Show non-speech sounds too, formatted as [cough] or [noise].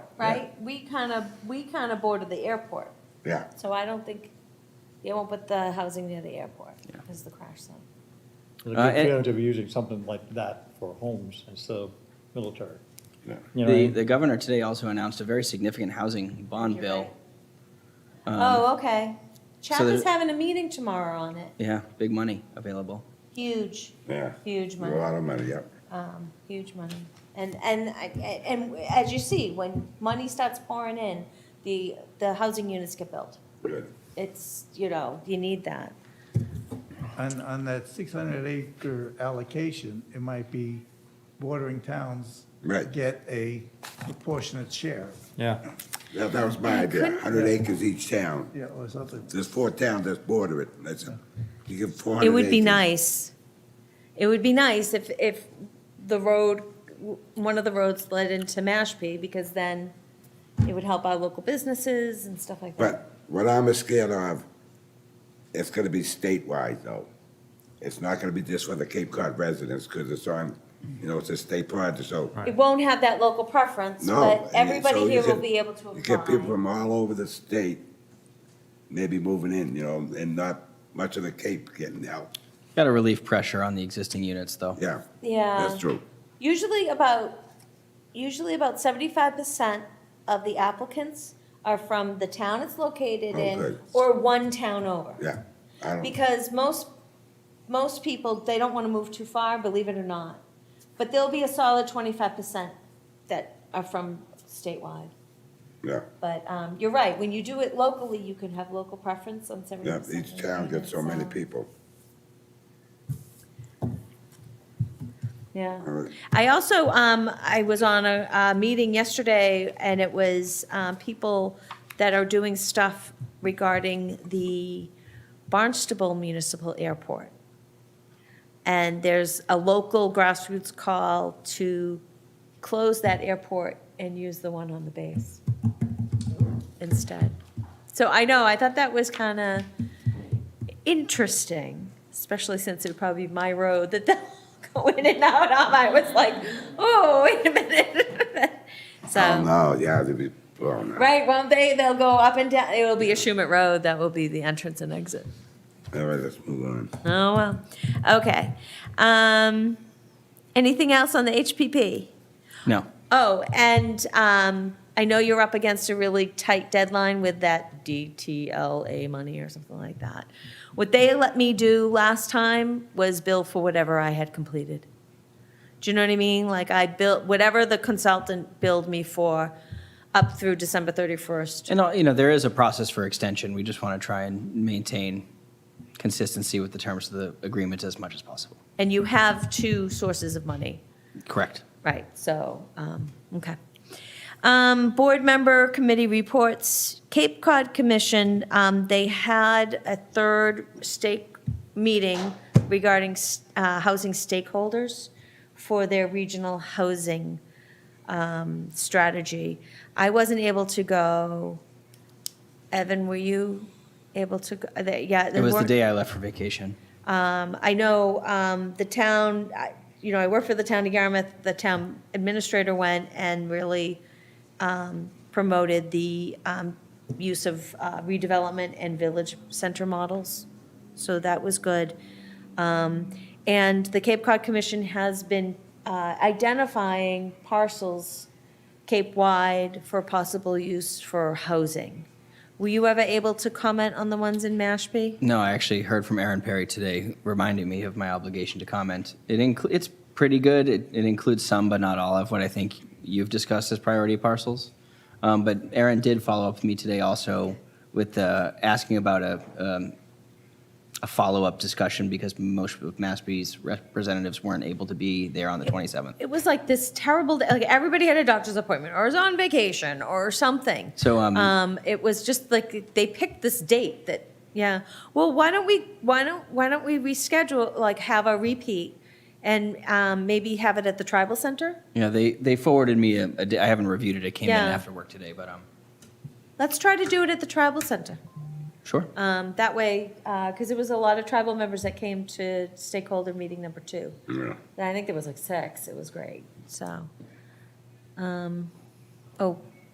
right? We kind of, we kind of border the airport, Yeah, so I don't think, they won't put the housing near the airport because of the crash zone. It'd Uh, be and- creative using something like that for homes instead of military. Yeah. You know, The, what I mean? the governor today also announced a very significant housing bond You're bill. right. Um, Oh, okay. Chap there- is having a meeting tomorrow on it. Yeah, big money available. Huge, yeah. huge A money. lot of money, yeah. um, huge money. And, and, I- and as you see, when money starts pouring in, the, the housing units get built. Good. It's, you know, you need that. On, on that 600 acre allocation, it might be bordering towns. Right. Get a proportionate share, Yeah, That, that was my idea, hundred acres each town. yeah, or something. There's four towns that border it, that's, you give four hundred It acres. would be nice. It would be nice if, if the road, one of the roads led into Mashpee, because then it would help our local businesses and stuff like that. But what I'm scared of, it's gonna be statewide though. It's not gonna be just for the Cape Cod residents, cause it's on, you know, it's a state project, so. It won't have that local preference, No. but and so everybody you here will get- be able to You get people apply. from all over the state, maybe moving in, you know, and not much of the Cape getting out, Got to relieve pressure on the existing units, though. yeah, Yeah. that's true. Usually about, usually about seventy-five percent of the applicants are from the town it's located in Okay. or one town over. Yeah, I don't, Because most, most people, they don't want to move too far, believe it or not. But there'll be a solid twenty-five percent that are from statewide. yeah, But, um, you're right, when you do it locally, you can have local preference on seventy yeah, percent. each town gets so many people. Yeah. All right. I also, um, I was on a, a meeting yesterday, and it was, um, people that are doing stuff regarding the Barnstable Municipal Airport. And there's a local grassroots call to close that airport and use the one on the base instead. So I know, I thought that was kind of interesting, especially since it would probably be my road that they'll [laughs] go in and out of. I was like, oh, wait a minute. [laughs] Oh, So, no, yeah, they'd be, oh, no. right, well, they, they'll go up and down. It will be a Schumet Road. That will be the entrance and exit. All right, let's move on. Oh, well, okay. Um, anything else on the HPP? No. Oh, and um, I know you're up against a really tight deadline with that DTLA money or something like that. What they let me do last time was bill for whatever I had completed. Do you know what I mean? Like I built, whatever the consultant billed me for up through December 31st. And, uh, you know, there is a process for extension. We just want to try and maintain consistency with the terms of the agreements as much as possible. And you have two sources of money. Correct. Right, so, um, okay. Um, board member committee reports, Cape Cod Commission, um, they had a third stake meeting regarding, s- uh, housing stakeholders for their regional housing, um, strategy. I wasn't able to go. Evan, were you able to, go? Uh, they- yeah. It was the day I left for vacation. Um, I know um, the town, I- you know, I work for the town of Yarmouth, the town administrator went and really um, promoted the um, use of uh, redevelopment and village center models, so that was good. Um, And the Cape Cod Commission has been uh, identifying parcels Cape-wide for possible use for housing. Were you ever able to comment on the ones in Mashpee? No, I actually heard from Aaron Perry today, reminding me of my obligation to comment. It incl- it's pretty good. It, it includes some, but not all of what I think you've discussed as priority parcels. Um, but Aaron did follow up with me today also with uh, asking about a, um, a follow up discussion because most of Massby's representatives weren't able to be there on the 27th. it was like this terrible day. like everybody had a doctor's appointment or was on vacation or something So, um, um it was just like they picked this date that yeah well why don't we why don't why don't we reschedule like have a repeat and um maybe have it at the tribal center yeah, they, they forwarded me, a, a di- I haven't reviewed it. It came Yeah. in after work today, but um, let's try to do it at the tribal center sure. um that way because it was a lot of tribal members that came to stakeholder meeting number two Yeah. And I think there was like six. It was great. So, um, oh,